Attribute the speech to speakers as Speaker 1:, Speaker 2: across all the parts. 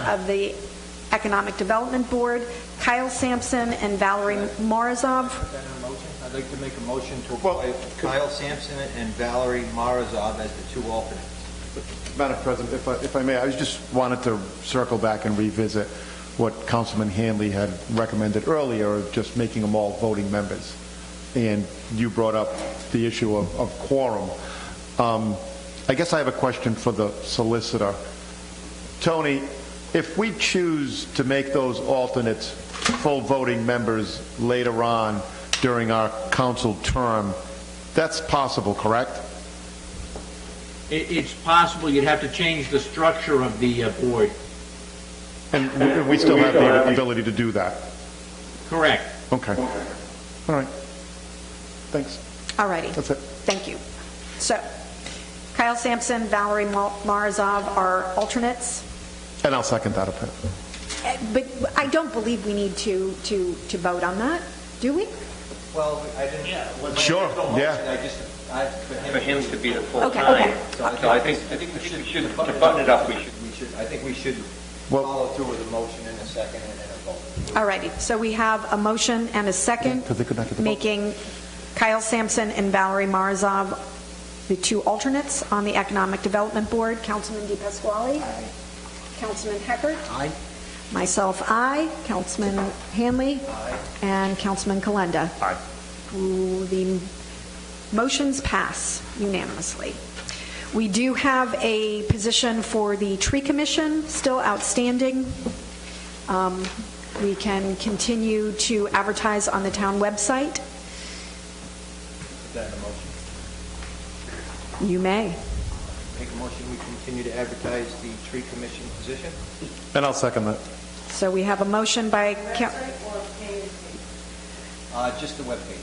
Speaker 1: of the Economic Development Board, Kyle Sampson and Valerie Marazov.
Speaker 2: Put that in a motion. I'd like to make a motion to appoint Kyle Sampson and Valerie Marazov as the two alternates.
Speaker 3: Madam President, if I, if I may, I just wanted to circle back and revisit what Councilman Hanley had recommended earlier, of just making them all voting members. And you brought up the issue of, of quorum. Um, I guess I have a question for the solicitor. Tony, if we choose to make those alternates full voting members later on during our council term, that's possible, correct?
Speaker 4: It, it's possible you'd have to change the structure of the uh, board.
Speaker 3: And we- we still have the ability to do that?
Speaker 4: Correct.
Speaker 3: Okay. All right. Thanks.
Speaker 1: All righty.
Speaker 3: That's it.
Speaker 1: Thank you. So Kyle Sampson, Valerie Ma- Marazov are alternates.
Speaker 3: And I'll second that. opinion.
Speaker 1: Uh, But I don't believe we need to, to, to vote on that, do we?
Speaker 2: Well, I didn't. when I
Speaker 3: Sure,
Speaker 2: made the motion, I
Speaker 3: yeah.
Speaker 2: just, I, for him.
Speaker 5: For him to be the
Speaker 1: Okay,
Speaker 5: full-time.
Speaker 1: okay.
Speaker 5: So I think, I think we should, should- to button it up, we should
Speaker 2: We should, I think we should
Speaker 3: Well-
Speaker 2: follow through with a motion and a second and then a vote.
Speaker 1: All righty. So we have a motion and a second.
Speaker 3: Because they could not get the vote.
Speaker 1: Making Kyle Sampson and Valerie Marazov the two alternates on the Economic Development Board. Councilman Di Pasquale? Aye. Councilman Heckert? Aye. Myself, aye. Councilman Hanley? Aye. And Councilman Kalenda? Aye. The motions pass unanimously. We do have a position for the Tree Commission still outstanding. Um, We can continue to advertise on the town website.
Speaker 2: Put that in a motion.
Speaker 1: You may.
Speaker 2: Make a motion, we continue to advertise the tree commission position?
Speaker 3: And I'll second that.
Speaker 1: So we have a motion by, Coun-
Speaker 2: Uh, just the webpage.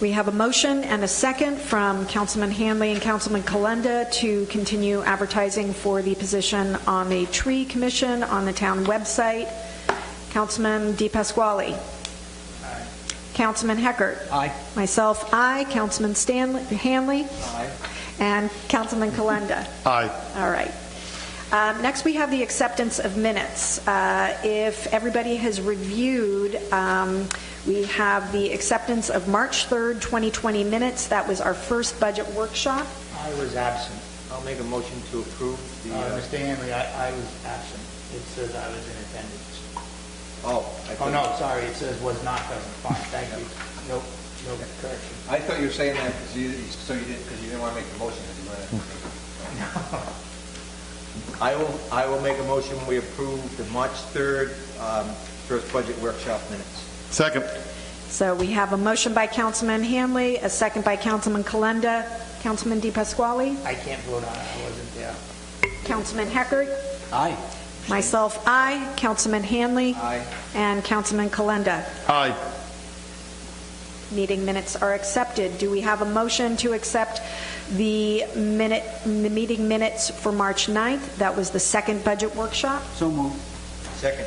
Speaker 1: we have a motion and a second from Councilman Hanley and Councilman Kalenda to continue advertising for the position on the tree commission on the town website. Councilman Di Pasquale. Councilman Heckert.
Speaker 2: Aye.
Speaker 1: Myself, aye. Councilman Stanley, Hanley.
Speaker 2: Aye.
Speaker 1: And Councilman Kalenda.
Speaker 3: Aye.
Speaker 1: All right. Um, Next, we have the acceptance of minutes. Uh, If everybody has reviewed, um, we have the acceptance of March 3rd, 2020 minutes. That was our first budget workshop.
Speaker 6: I was absent.
Speaker 2: I'll make a motion to approve the,
Speaker 6: Uh,
Speaker 2: uh,
Speaker 6: Mr. Hanley, I, I was absent. It says I was in attendance.
Speaker 2: oh. I
Speaker 6: Oh,
Speaker 2: thought-
Speaker 6: no, sorry, it says was not present. Fine, thank you. No, no correction.
Speaker 2: I thought you were saying that because you, so you didn't, because you didn't want to make the motion, 'cause you wanted to- I will, I will make a motion, we approve the March 3rd, um, first budget workshop minutes.
Speaker 3: Second.
Speaker 1: So we have a motion by Councilman Hanley, a second by Councilman Kalenda, Councilman Di Pasquale,
Speaker 6: I can't vote on it, I wasn't there.
Speaker 1: Councilman Heckert. Aye. Myself, aye. Councilman Hanley.
Speaker 2: Aye.
Speaker 1: And Councilman Kalenda.
Speaker 3: Aye.
Speaker 1: meeting minutes are accepted. Do we have a motion to accept the minute, the meeting minutes for March 9th? That was the second budget workshop.
Speaker 2: Second.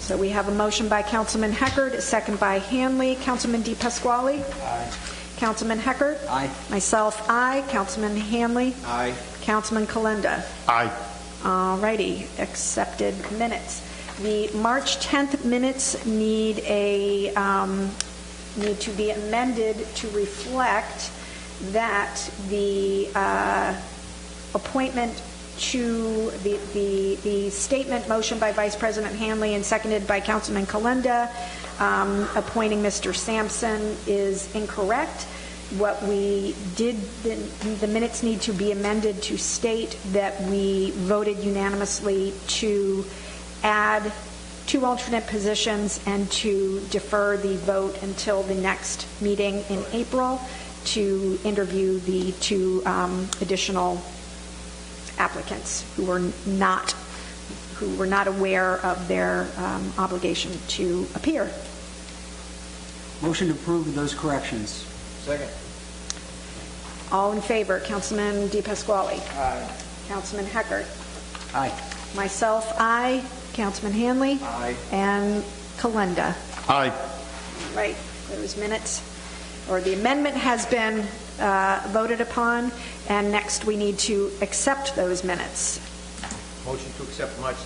Speaker 1: So we have a motion by Councilman Heckard, a second by Hanley. Councilman Di Pasquale?
Speaker 6: Aye.
Speaker 1: Councilman Heckard?
Speaker 2: Aye.
Speaker 1: Myself, aye. Councilman Hanley?
Speaker 2: Aye.
Speaker 1: Councilman Kalenda?
Speaker 3: Aye.
Speaker 1: All righty, accepted minutes. The March 10th minutes need a, um, need to be amended to reflect that the uh, appointment to, the the the statement motion by Vice President Hanley and seconded by Councilman Kalenda, um, appointing Mr. Sampson is incorrect. What we did, the the minutes need to be amended to state that we voted unanimously to add two alternate positions and to defer the vote until the next meeting in April to interview the two um, additional applicants who were not, who were not aware of their um, obligation to appear.
Speaker 7: Motion to approve those corrections.
Speaker 2: Second.
Speaker 1: All in favor, Councilman Di Pasquale? Councilman Heckert?
Speaker 7: Aye.
Speaker 1: Myself, aye. Councilman Hanley?
Speaker 2: Aye.
Speaker 1: And Kalenda?
Speaker 3: Aye.
Speaker 1: Right, those minutes, or the amendment has been uh, voted upon, and next we need to accept those minutes.
Speaker 2: Motion to accept March